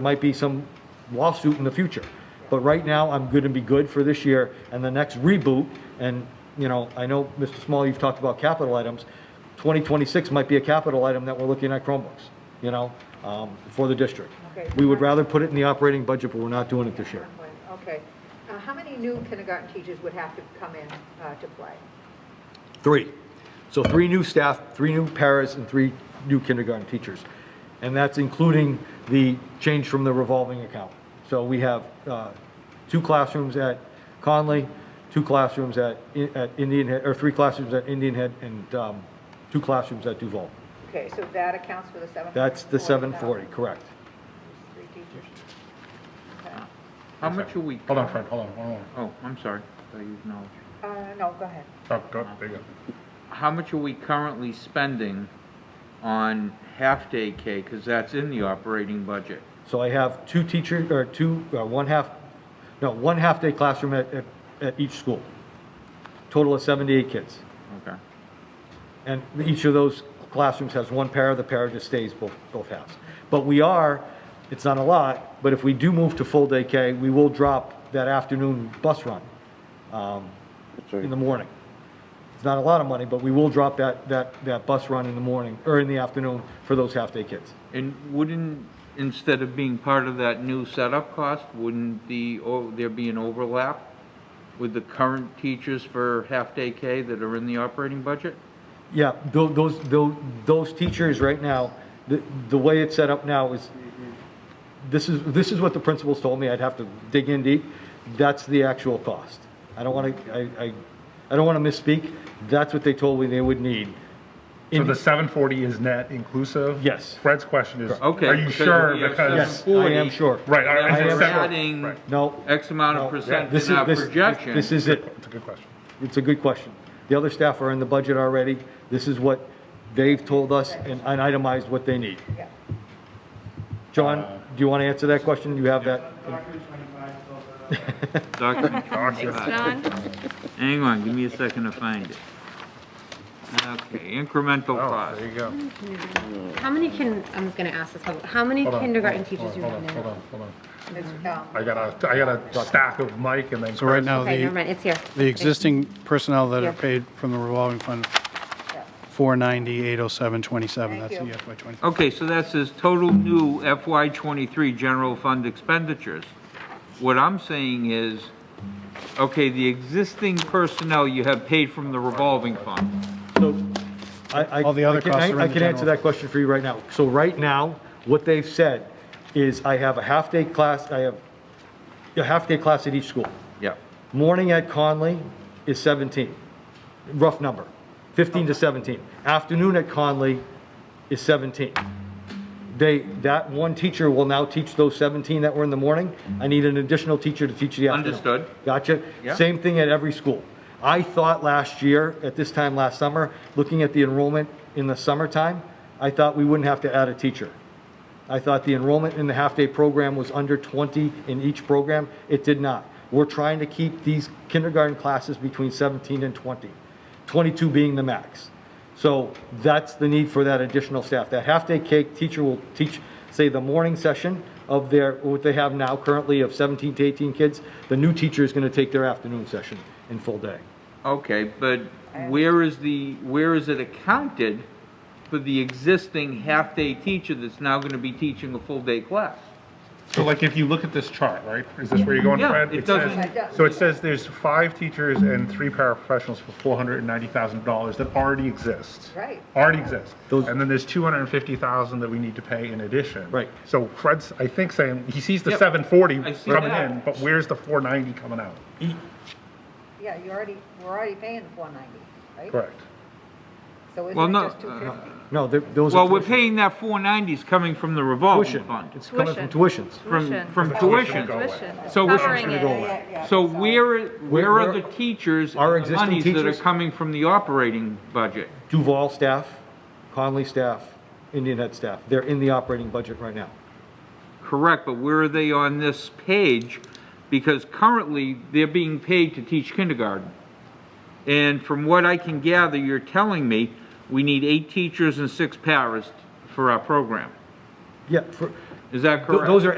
might be some lawsuit in the future. But right now, I'm good and be good for this year and the next reboot. And, you know, I know, Mr. Small, you've talked about capital items. 2026 might be a capital item that we're looking at Chromebooks, you know, um, for the district. Okay. We would rather put it in the operating budget, but we're not doing it this year. Okay. Uh, How many new kindergarten teachers would have to come in uh, to play? Three. So three new staff, three new paras, and three new kindergarten teachers. And that's including the change from the revolving account. So we have uh, two classrooms at Conley, two classrooms at I- at Indian Head, or three classrooms at Indian Head, and um, two classrooms at Duval. Okay, so that accounts for the 740,000? That's the 740, correct? Three teachers. Okay. How much are we? Hold on, Fred, hold on, hold on. Oh, I'm sorry. I thought you acknowledged. Uh, No, go ahead. Stop, stop, there you go. How much are we currently spending on half-day K, because that's in the operating budget? So I have two teacher, or two, uh, one half, no, one half-day classroom at at at each school. Total of 78 kids. Okay. And each of those classrooms has one para, the para just stays both, both halves. But we are, it's not a lot, but if we do move to full day K, we will drop that afternoon bus run um, in the morning. It's not a lot of money, but we will drop that, that, that bus run in the morning, or in the afternoon for those half-day kids. And wouldn't, instead of being part of that new setup cost, wouldn't the, o- there be an overlap with the current teachers for half-day K that are in the operating budget? Yeah, tho- those, tho- those teachers right now, the, the way it's set up now is, this is, this is what the principals told me, I'd have to dig in deep, that's the actual cost. I don't want to, I, I, I don't want to misspeak, that's what they told me they would need. So the seven forty is net inclusive? Yes. Fred's question is, Okay, are you because sure? we have Yes, Because, I am 40. sure. right, Now, I, I am We're separate- adding right. No. X amount no, of percent this in is- our this- this- projection. This is it. It's a good question. It's a good question. The other staff are in the budget already. This is what they've told us and and itemized what they need. Yeah. Uh, John, do you want to answer that question? You have that? Document 25. Hang on, give me a second to find it. Okay, incremental Oh, cost. there you go. How many can, I'm gonna ask this, public- how many Hold on, kindergarten hold on, teachers do you hold have on, Hold now? on, hold on. It's, um, I got a, I got a stack of Mike and then. So right Chris. now, Okay, never the, mind, it's here. the existing personnel that Yeah. are paid from the revolving fund, yeah. 490, 807, 27, Thank that's the you. FY '25. Okay, so that says total new FY '23 general fund expenditures. What I'm saying is, okay, the existing personnel you have paid from the revolving fund. So, I, I. All the other I can- costs I- are in I the can answer general. that question for you right now. So right now, what they've said is I have a half-day class, I have a half-day class at each school. Yeah. Morning at Conley is 17, rough number, 15 to 17. Afternoon at Conley is 17. They, that one teacher will now teach those 17 that were in the morning. I need an additional teacher to teach the afternoon. Understood. Gotcha. Yeah. Same thing at every school. I thought last year, at this time last summer, looking at the enrollment in the summertime, I thought we wouldn't have to add a teacher. I thought the enrollment in the half-day program was under 20 in each program. It did not. We're trying to keep these kindergarten classes between 17 and 20, 22 being the max. So that's the need for that additional staff. That half-day cake teacher will teach, say, the morning session of their, what they have now currently of 17 to 18 kids. The new teacher is going to take their afternoon session in full day. Okay, but where is the, where is it accounted for the existing half-day teacher that's now gonna be teaching a full-day class? So like, if you look at this chart, right, is this where you're going, Yeah, Fred? it says- doesn't- So it says there's five teachers and three paraprofessionals for four hundred and ninety thousand dollars that already exist. Right. Already exist. Those- And then there's two hundred and fifty thousand that we need to pay in addition. Right. So Fred's, I think, saying, he sees the Yep. seven forty I see coming that. in, but where's the four ninety coming out? Yeah, you already, we're already paying the 490, right? Correct. So Well, isn't it no, just uh, 250? No, there- those are Well, we're tuition. paying that four ninety's coming from the revolving Tuition. fund, It's coming from tuitions. from, from Tuition. tuition. So we're- Covering Gonna go it. away. Yeah, yeah, So sorry. where, where are where- the teachers Our and the existing monies that are teachers? coming from the operating budget? Duval staff, Conley staff, Indian Head staff, they're in the operating budget right now. Correct, but where are they on this page? Because currently, they're being paid to teach kindergarten. And from what I can gather, you're telling me we need eight teachers and six paras for our program. Yeah, for, Is that th- correct? those are